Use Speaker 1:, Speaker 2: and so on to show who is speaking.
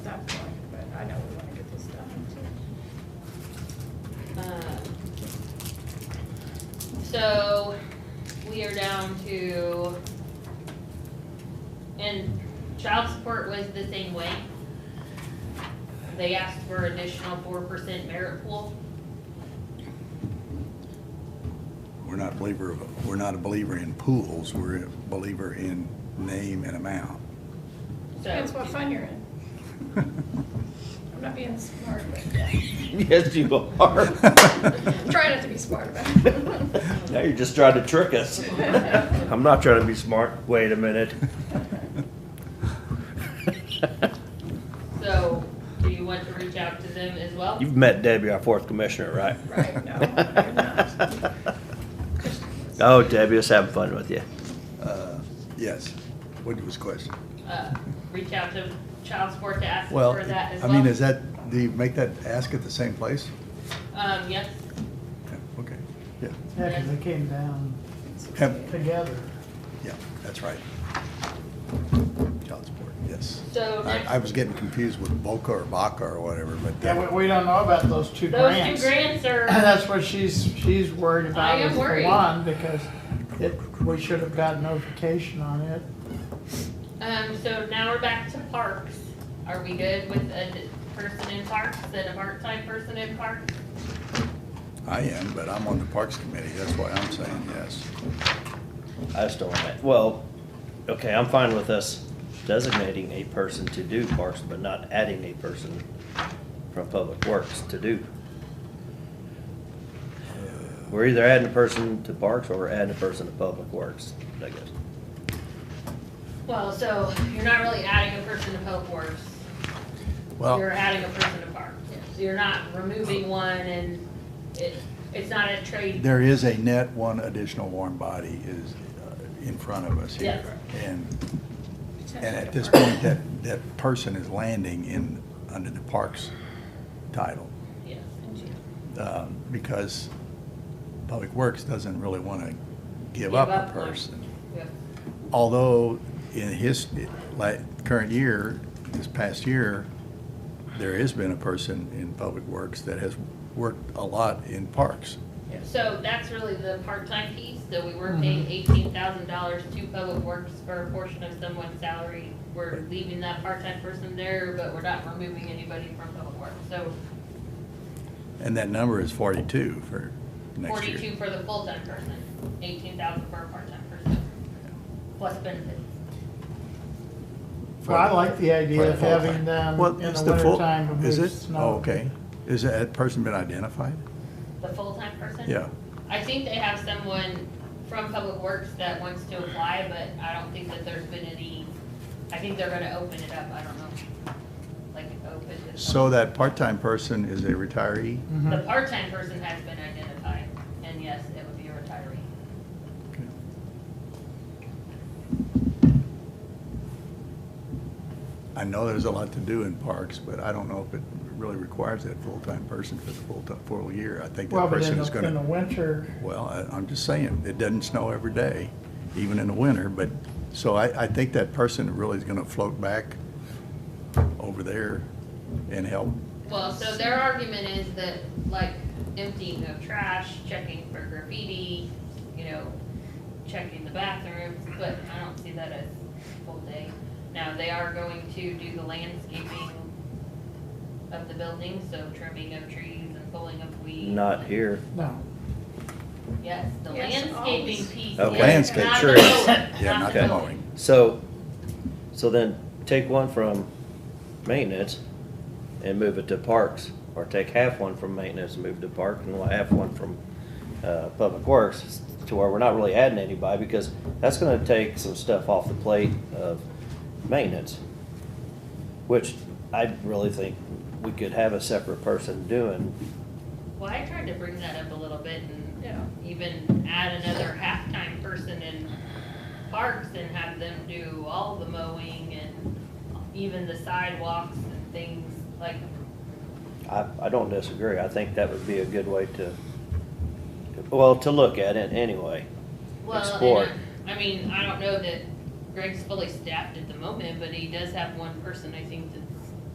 Speaker 1: Um, So we are down to, and child support was the same way. They asked for additional four percent merit pool.
Speaker 2: We're not a believer, of- we're not a believer in pools, we're a believer in name and amount.
Speaker 3: Depends
Speaker 1: So
Speaker 3: what fund you're in. I'm not being smart,
Speaker 4: Yes, you are.
Speaker 3: but try not to be smart about it.
Speaker 4: Now you're just trying to trick us. I'm not trying to be smart. Wait a minute.
Speaker 1: so do you want to reach out to them as well?
Speaker 4: You've met Debbie, our fourth commissioner, right?
Speaker 3: Right, no, I'm not.
Speaker 4: Oh, Debbie, just having fun with you.
Speaker 2: Uh, Yes, what was the question?
Speaker 1: Uh, reach out to child support to ask
Speaker 2: Well,
Speaker 1: for that as
Speaker 2: I
Speaker 1: well?
Speaker 2: mean, is that, do you make that ask at the same place?
Speaker 1: Um, yes,
Speaker 2: Yeah, Okay, yeah,
Speaker 5: Yeah, 'cause they came down
Speaker 2: Have-
Speaker 5: together.
Speaker 2: yeah, that's right. Child support, yes.
Speaker 1: so
Speaker 2: I,
Speaker 1: next.
Speaker 2: I was getting confused with Boca or Baca or whatever, but. uh,
Speaker 5: Yeah, we, we don't know about those two
Speaker 1: Those two
Speaker 5: grants.
Speaker 1: grants
Speaker 5: And
Speaker 1: are,
Speaker 5: that's what she's, she's worried
Speaker 1: I
Speaker 5: about
Speaker 1: am
Speaker 5: is the
Speaker 1: worried.
Speaker 5: one, because it, we should have gotten notification on it.
Speaker 1: um, so now we're back to parks. Are we good with a d- person in parks and a part-time person in parks?
Speaker 2: I am, but I'm on the Parks Committee, that's why I'm saying yes.
Speaker 4: I just don't want that. Well, okay, I'm fine with us designating a person to do parks, but not adding a person from Public Works to do. We're either adding a person to parks or we're adding a person to Public Works, I guess.
Speaker 1: Well, so you're not really adding a person to Public Works. You're
Speaker 2: Well,
Speaker 1: adding a person to parks. So you're not removing one and it, it's not a trade.
Speaker 2: there is a net, one additional warm body is uh, in front of us here. And And at this point, that, that person is landing in, under the parks title,
Speaker 1: Yes.
Speaker 2: um, because Public Works doesn't really want to give
Speaker 1: Give
Speaker 2: up
Speaker 1: up
Speaker 2: a
Speaker 1: one.
Speaker 2: person.
Speaker 1: Yep.
Speaker 2: Although, in his, like, current year, this past year, there has been a person in Public Works that has worked a lot in parks.
Speaker 1: So that's really the part-time piece, that we
Speaker 2: Mm-hmm.
Speaker 1: were paying eighteen thousand dollars to Public Works for a portion of someone's salary. We're leaving that part-time person there, but we're not removing anybody from Public Works. So
Speaker 2: And that number is forty-two for next year.
Speaker 1: forty-two for the full-time person, eighteen thousand for a part-time person, plus benefits.
Speaker 5: Well, I like the
Speaker 2: For
Speaker 5: idea
Speaker 2: the
Speaker 5: of
Speaker 2: full
Speaker 5: having
Speaker 2: time.
Speaker 5: them
Speaker 2: Well,
Speaker 5: Um, in
Speaker 2: it's
Speaker 5: the
Speaker 2: full-
Speaker 5: wintertime to
Speaker 2: Is
Speaker 5: move
Speaker 2: it?
Speaker 5: snow.
Speaker 2: Oh, okay. Is that person been identified?
Speaker 1: The full-time person?
Speaker 2: Yeah.
Speaker 1: I think they have someone from Public Works that wants to apply, but I don't think that there's been any, I think they're gonna open it up, I don't know. Like, open it up.
Speaker 2: So that part-time person is a retiree?
Speaker 1: The
Speaker 5: Mhm.
Speaker 1: part-time person has been identified, and yes, it would be a retiree.
Speaker 2: I know there's a lot to do in parks, but I don't know if it really requires that full-time person for the full, ti- full year. I think
Speaker 5: Well,
Speaker 2: that
Speaker 5: but
Speaker 2: person
Speaker 5: in
Speaker 2: is
Speaker 5: the, in the
Speaker 2: gonna,
Speaker 5: winter,
Speaker 2: well, I- I'm just saying, it doesn't snow every day, even in the winter, but, so I, I think that person really is gonna float back over there and help.
Speaker 1: Well, so their argument is that, like, emptying of trash, checking for graffiti, you know, checking the bathrooms, but I don't see that as full day. Now, they are going to do the landscaping of the building, so trimming of trees and pulling of weeds.
Speaker 4: Not here.
Speaker 5: no.
Speaker 1: Yes, the
Speaker 3: Yes,
Speaker 1: landscaping
Speaker 3: always.
Speaker 1: piece.
Speaker 4: Oh,
Speaker 1: yes,
Speaker 2: landscape,
Speaker 1: not
Speaker 4: sure.
Speaker 1: the mowing,
Speaker 2: Yeah, not
Speaker 4: Okay.
Speaker 2: the
Speaker 1: mowing.
Speaker 2: mowing.
Speaker 4: So, so then take one from maintenance and move it to parks, or take half one from maintenance and move to park, and one- half one from, uh, public works, to where we're not really adding anybody, because that's gonna take some stuff off the plate of maintenance, which I really think we could have a separate person doing.
Speaker 1: Well, I tried to bring that up a little bit and
Speaker 3: Yeah.
Speaker 1: even add another halftime person in parks and have them do all the mowing and even the sidewalks and things like,
Speaker 4: I, I don't disagree, I think that would be a good way to, well, to look at it anyway.
Speaker 1: well,
Speaker 4: Explore.
Speaker 1: and I, I mean, I don't know that Greg's fully staffed at the moment, but he does have one person, I think, that's